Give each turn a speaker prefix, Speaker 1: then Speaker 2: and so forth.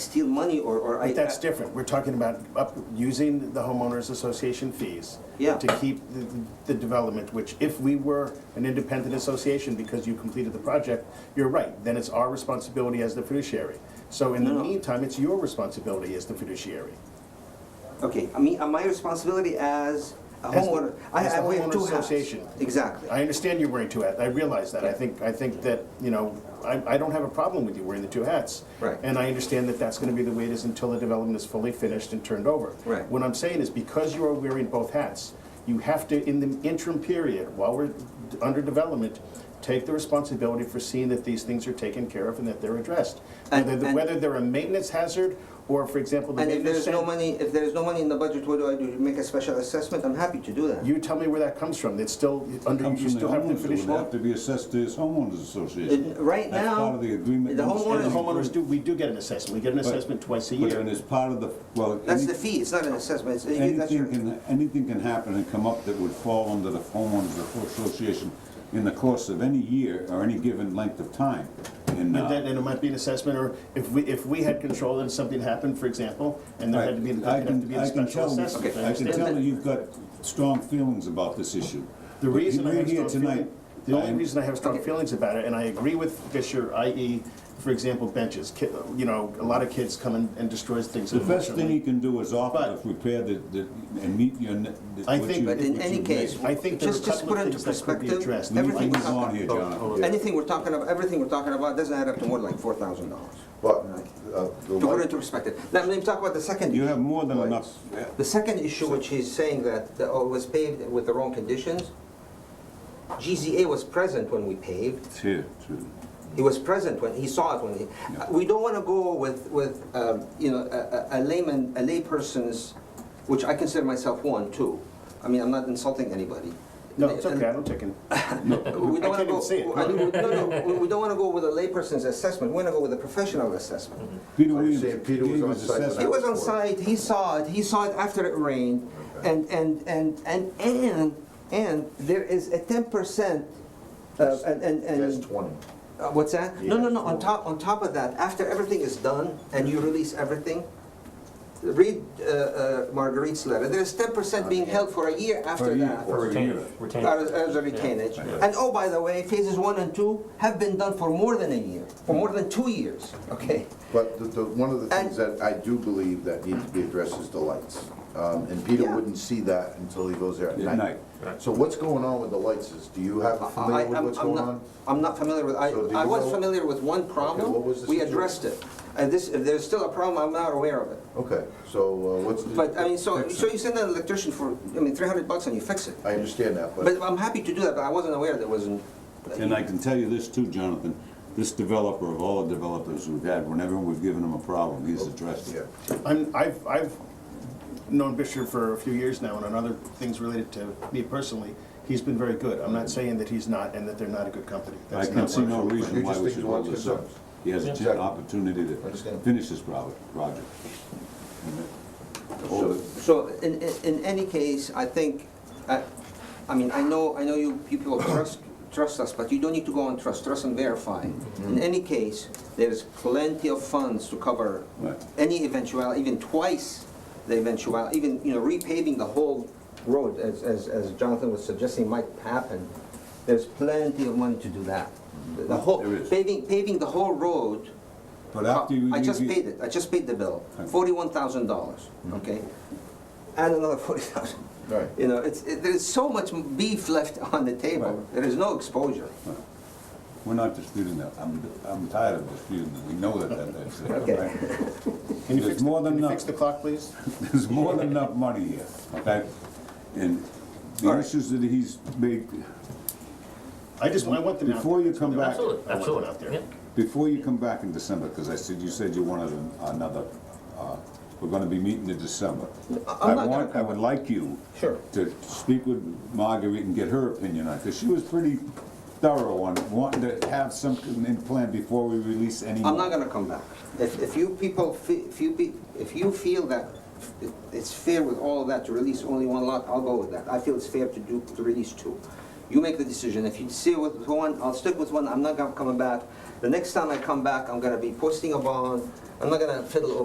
Speaker 1: steal money or, or I.
Speaker 2: But that's different. We're talking about up, using the homeowners association fees.
Speaker 1: Yeah.
Speaker 2: To keep the, the development, which if we were an independent association because you completed the project, you're right, then it's our responsibility as the fiduciary. So in the
Speaker 1: No.
Speaker 2: meantime, it's your responsibility as the fiduciary.
Speaker 1: Okay, I mean, uh, my responsibility as a
Speaker 2: As the-
Speaker 1: homeowner, I,
Speaker 2: as
Speaker 1: I
Speaker 2: the
Speaker 1: we have two
Speaker 2: homeowner
Speaker 1: hats.
Speaker 2: association.
Speaker 1: Exactly.
Speaker 2: I understand you're wearing two hats, I realize that, I
Speaker 1: Yeah.
Speaker 2: think, I think that, you know, I, I don't have a problem with you wearing the two hats.
Speaker 1: Right.
Speaker 2: And I understand that that's gonna be the way it is until the development is fully finished and turned over.
Speaker 1: Right.
Speaker 2: What I'm saying is, because you are wearing both hats, you have to, in the interim period, while we're d- under development, take the responsibility for seeing that these things are taken care of and that they're addressed.
Speaker 1: And-
Speaker 2: Whether, the-
Speaker 1: and-
Speaker 2: whether they're a maintenance hazard, or for example, the
Speaker 1: And if
Speaker 2: maintenance.
Speaker 1: there's no
Speaker 2: center-
Speaker 1: money, if there's no money in the budget, what do I do? Make a special assessment? I'm happy to do that.
Speaker 2: You tell me where that comes from, it's still under,
Speaker 3: Comes
Speaker 2: you
Speaker 3: from the
Speaker 2: still have to
Speaker 3: homeowners, it
Speaker 2: finish.
Speaker 3: would have to be assessed to his homeowners association.
Speaker 1: Uh, right
Speaker 3: That's
Speaker 1: now,
Speaker 3: part of the agreement.
Speaker 1: the
Speaker 3: with
Speaker 1: homeowners-
Speaker 2: The
Speaker 3: every group.
Speaker 2: homeowners do, we do get an assessment, we get an assessment twice a
Speaker 3: But then
Speaker 2: year.
Speaker 3: it's part of the, well.
Speaker 1: That's
Speaker 3: any-
Speaker 1: the fee, it's not an assessment, it's, you- that's your,
Speaker 3: Anything can, anything can happen and come up that would fall under the homeowners association in the course of any year or any given length of time.
Speaker 2: And
Speaker 3: And,
Speaker 2: then,
Speaker 3: uh,
Speaker 2: and it might be an assessment, or if we, if we had control and something happened, for example, and there had to be,
Speaker 3: I
Speaker 2: there'd have to
Speaker 3: can,
Speaker 2: be a
Speaker 3: I can
Speaker 2: special
Speaker 3: tell,
Speaker 2: assessment. I
Speaker 3: I can
Speaker 2: understand
Speaker 3: tell
Speaker 2: that.
Speaker 3: that you've got strong feelings about this issue.
Speaker 2: The
Speaker 3: But
Speaker 2: reason I
Speaker 3: you're
Speaker 2: have
Speaker 3: here
Speaker 2: strong feelings,
Speaker 3: tonight,
Speaker 2: the only
Speaker 3: I'm-
Speaker 2: reason I have strong
Speaker 1: Okay.
Speaker 2: feelings about it, and I agree with Fisher, i.e., for example, benches, Ki- you know, a lot of kids come and and destroys things.
Speaker 3: The best thing
Speaker 2: unfortunately.
Speaker 3: he can do is offer
Speaker 2: But-
Speaker 3: to repair the, the, and meet your. ne- the-
Speaker 2: I
Speaker 3: what
Speaker 2: think-
Speaker 3: you-
Speaker 2: But
Speaker 1: in
Speaker 3: what
Speaker 1: any
Speaker 3: you
Speaker 1: case,
Speaker 3: made.
Speaker 2: I think there are a
Speaker 1: Just- just
Speaker 2: couple
Speaker 1: put
Speaker 2: of
Speaker 1: into
Speaker 2: things that could be
Speaker 1: perspective,
Speaker 2: addressed.
Speaker 3: We need
Speaker 1: everything
Speaker 3: to
Speaker 1: was
Speaker 3: move on
Speaker 1: up-
Speaker 3: here,
Speaker 4: oh,
Speaker 3: Jonathan.
Speaker 4: oh,
Speaker 1: anything we're talking about, everything we're talking about doesn't add up to more than like four thousand dollars.
Speaker 4: But uh, the
Speaker 1: To put
Speaker 4: one,
Speaker 1: into perspective. Now, let me talk about the
Speaker 4: oh.
Speaker 1: second
Speaker 3: You
Speaker 1: issue.
Speaker 3: have more than enough.
Speaker 1: The second issue, which he's saying that the- oh, it was paved with the wrong conditions, GZA was present when we paved.
Speaker 3: It's here, too.
Speaker 1: He was present when, he saw it when he,
Speaker 3: Yeah.
Speaker 1: we don't want to go with, with, um, you know, a- a a layman, a layperson's, which I consider myself one, too. I mean, I'm not insulting anybody.
Speaker 2: No, it's okay, I don't take it.
Speaker 1: We
Speaker 2: I
Speaker 1: don't want to
Speaker 2: can't even
Speaker 1: go,
Speaker 2: see it.
Speaker 1: I- we- no, no, we- we don't want to go with a layperson's assessment, we want to go with a professional assessment.
Speaker 3: Peter
Speaker 4: Are you
Speaker 3: Williams.
Speaker 4: saying Peter was
Speaker 3: gave
Speaker 4: on
Speaker 3: his
Speaker 4: site when
Speaker 3: assessment.
Speaker 1: He was on
Speaker 4: Sure.
Speaker 1: site, he saw it, he saw it after it rained, and, and, and, and, and, and there is a ten percent, uh, and, and,
Speaker 4: that's
Speaker 1: and,
Speaker 4: 20.
Speaker 1: uh, what's that? No, no, no, on
Speaker 2: Yeah.
Speaker 1: top, on top of that, after everything is done and you release everything, read, uh, uh, Marguerite's letter, there's ten percent being held for a year
Speaker 3: For
Speaker 1: after
Speaker 3: a year.
Speaker 1: that.
Speaker 3: For a
Speaker 5: Retain-
Speaker 3: year.
Speaker 5: retain-
Speaker 1: As, as a retainage.
Speaker 3: Yeah.
Speaker 1: And oh, by the way, phases one and two have been done for more than a year, for more than two years, okay?
Speaker 4: But the, the, one of the things that I do believe that needs to be addressed is the lights. Um, and Peter
Speaker 1: Yeah.
Speaker 4: wouldn't see that until he goes there at
Speaker 3: At
Speaker 4: night.
Speaker 3: night.
Speaker 5: Right.
Speaker 4: So what's going on with the lights is, do you have a
Speaker 1: I-
Speaker 4: familiar with
Speaker 1: I'm-
Speaker 4: what's
Speaker 1: I'm
Speaker 4: going
Speaker 1: not-
Speaker 4: on?
Speaker 1: I'm not familiar with, I,
Speaker 4: So do
Speaker 1: I
Speaker 4: you
Speaker 1: was
Speaker 4: know-
Speaker 1: familiar with one
Speaker 4: what
Speaker 1: problem,
Speaker 4: was the
Speaker 1: we
Speaker 4: situation?
Speaker 1: addressed it. And this, if there's still a problem, I'm not aware of it.
Speaker 4: Okay, so uh, what's the?
Speaker 1: But, I mean, so, so you send an electrician for, I mean, three hundred bucks and you fix it.
Speaker 4: I understand that, but.
Speaker 1: But I'm happy to do that, but I wasn't aware there wasn't.
Speaker 3: And I can tell you this too, Jonathan, this developer of all the developers we've had, whenever we've given him a problem, he's addressed
Speaker 4: Oh, Yeah.
Speaker 3: it.
Speaker 2: I'm, I've, I've known Bishop for a few years now, and on other things related to me personally, he's been very good. I'm not saying that he's not, and that they're not a good company.
Speaker 3: I
Speaker 2: That's
Speaker 3: can
Speaker 2: not
Speaker 3: see
Speaker 2: what-
Speaker 3: no reason
Speaker 4: You
Speaker 3: why
Speaker 4: just
Speaker 3: we
Speaker 4: think
Speaker 3: should
Speaker 4: you
Speaker 3: hold
Speaker 4: want
Speaker 3: this
Speaker 4: to
Speaker 3: up. He has a
Speaker 4: Exactly.
Speaker 3: chance- opportunity to
Speaker 4: Understand.
Speaker 3: finish this prob- project. Hold it.
Speaker 1: So in, in- in any case, I think, I, I mean, I know, I know you you people trust, trust us, but you don't need to go on trust, trust and verify.
Speaker 3: Mm-hmm.
Speaker 1: In any case, there's plenty of funds to cover
Speaker 3: Right.
Speaker 1: any eventuality, even twice the eventuality, even, you know, repaving the whole road, as, as as Jonathan was suggesting might happen. There's plenty of money to do that. The- The whole,
Speaker 3: Mm-hmm. There is.
Speaker 1: paving, paving the whole road,
Speaker 3: But after you.
Speaker 1: I just
Speaker 3: you-
Speaker 1: paid it, I just paid the bill,
Speaker 3: Okay. Mm-hmm.
Speaker 1: forty-one thousand dollars, okay? Add another forty thousand.
Speaker 4: Right.
Speaker 1: You know, it's, it- there's so much beef left on the table,
Speaker 3: Right.
Speaker 1: there is no exposure.
Speaker 3: We're not disputing that. I'm, I'm tired of disputing it. We know that, that, that's it.
Speaker 1: Okay.
Speaker 3: right?
Speaker 2: Can you fix
Speaker 3: There's
Speaker 2: the-
Speaker 3: more than
Speaker 2: Can you
Speaker 3: enough.
Speaker 2: fix the clock, please?
Speaker 3: There's more than enough money here, okay? And
Speaker 1: All
Speaker 3: the
Speaker 1: right.
Speaker 3: issues that he's made,
Speaker 2: I just, I want them out.
Speaker 3: Before you come back,
Speaker 2: Absolutely. I want them out there.
Speaker 5: Yeah.
Speaker 3: before you come back in December, because I said, you said you wanted an- another, uh, we're gonna be meeting in December.
Speaker 1: I'm not
Speaker 3: I
Speaker 1: gonna
Speaker 3: want, I would like you.
Speaker 1: Sure.
Speaker 3: To speak with Marguerite and get her opinion on it, because she was pretty thorough on wanting to have some in plan before we release any.
Speaker 1: I'm not gonna come back. If, if you people, fe- if you, pe- if you feel that it- it's fair with all of that to release only one lot, I'll go with that. I feel it's fair to do, to release two. You make the decision. If you stay with one, I'll stick with one, I'm not gonna come back. The next time I come back, I'm gonna be posting a bond, I'm not gonna fiddle